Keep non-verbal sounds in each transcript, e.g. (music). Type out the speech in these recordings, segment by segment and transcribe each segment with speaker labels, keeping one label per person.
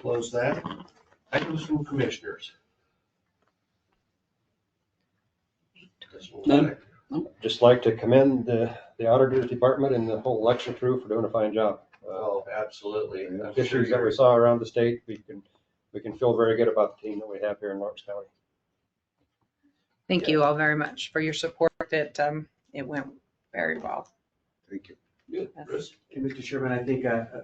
Speaker 1: close that. Items from commissioners. This one,
Speaker 2: None.
Speaker 3: Just like to commend the, the auditors department and the whole election crew for doing a fine job. Uh,
Speaker 1: Oh, absolutely. I'm sure
Speaker 3: Issues that
Speaker 1: you're-
Speaker 3: we saw around the state, we can, we can feel very good about the team that we have here in Lawrence County.
Speaker 4: Thank you all very much for your support. It, um, it went very well.
Speaker 5: Thank you.
Speaker 1: Good, Chris.
Speaker 6: And Mr. Chairman, I think, uh, uh,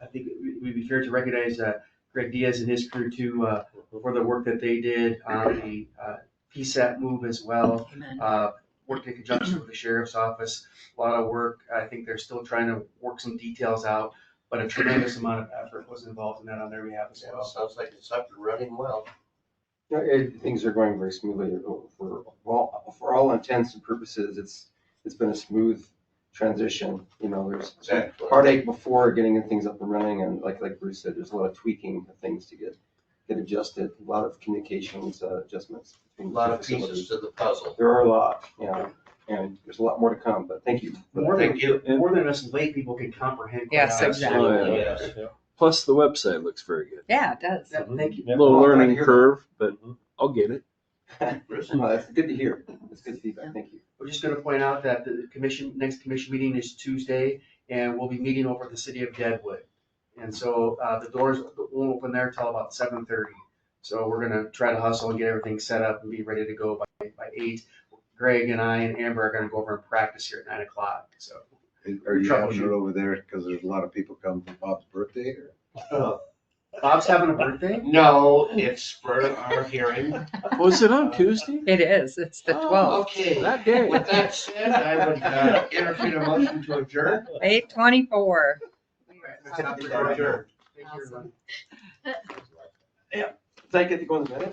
Speaker 6: I think it would be fair to recognize uh, Greg Diaz and his crew too, uh, for the work that they did on the uh, PSAP move as well. Uh, Worked in conjunction with the sheriff's office, a lot of work. I think they're still trying to work some details out, but a tremendous amount of effort was involved in that on their behalf as
Speaker 1: Yeah,
Speaker 6: well.
Speaker 1: Sounds like it's up and running well.
Speaker 7: Yeah, it- Things are going very smoothly. For, well, for all intents and purposes, it's, it's been a smooth transition. You know, there's some
Speaker 1: Exactly.
Speaker 7: heartache before getting things up and running and like, like Bruce said, there's a lot of tweaking of things to get, get adjusted, a lot of communications uh, adjustments.
Speaker 1: A
Speaker 7: between
Speaker 1: lot of
Speaker 7: facilities.
Speaker 1: pieces to the puzzle.
Speaker 7: There are a lot, yeah, and there's a lot more to come, but thank you. for that.
Speaker 6: More than,
Speaker 1: Thank you.
Speaker 6: more than us lay people can comprehend. quite
Speaker 4: Yes,
Speaker 6: honestly.
Speaker 4: exactly.
Speaker 1: Absolutely, yes.
Speaker 5: Plus, the website looks very good.
Speaker 4: Yeah, it does.
Speaker 6: That- Thank you.
Speaker 5: A little
Speaker 7: Oh, I
Speaker 5: learning
Speaker 7: hear that. Mm-hmm.
Speaker 5: curve, but I'll get it.
Speaker 1: Chris?
Speaker 7: No, That's good to hear. That's good feedback. Thank you.
Speaker 6: We're just gonna point out that the commission, next commission meeting is Tuesday, and we'll be meeting over at the city of Deadwood. And so, uh, the doors won't open there till about seven thirty. So we're gonna try to hustle and get everything set up and be ready to go by, by eight. Greg and I and Amber are gonna go over and practice here at nine o'clock, so.
Speaker 5: Are you having it
Speaker 6: Troubleshoot.
Speaker 5: over there? Because there's a lot of people coming for Bob's birthday or?
Speaker 6: Oh, Bob's having a birthday?
Speaker 1: No, it's for our hearing.
Speaker 5: Was it
Speaker 7: (laughs)
Speaker 5: on Tuesday?
Speaker 4: It is. It's the
Speaker 5: Oh,
Speaker 4: 12th,
Speaker 1: Okay,
Speaker 5: That day.
Speaker 1: with that said, I would uh, entertain a motion to adjourn.
Speaker 4: 8:24.
Speaker 1: Adjourn.
Speaker 6: Thank you, everyone.
Speaker 7: Does that get to go in the minutes?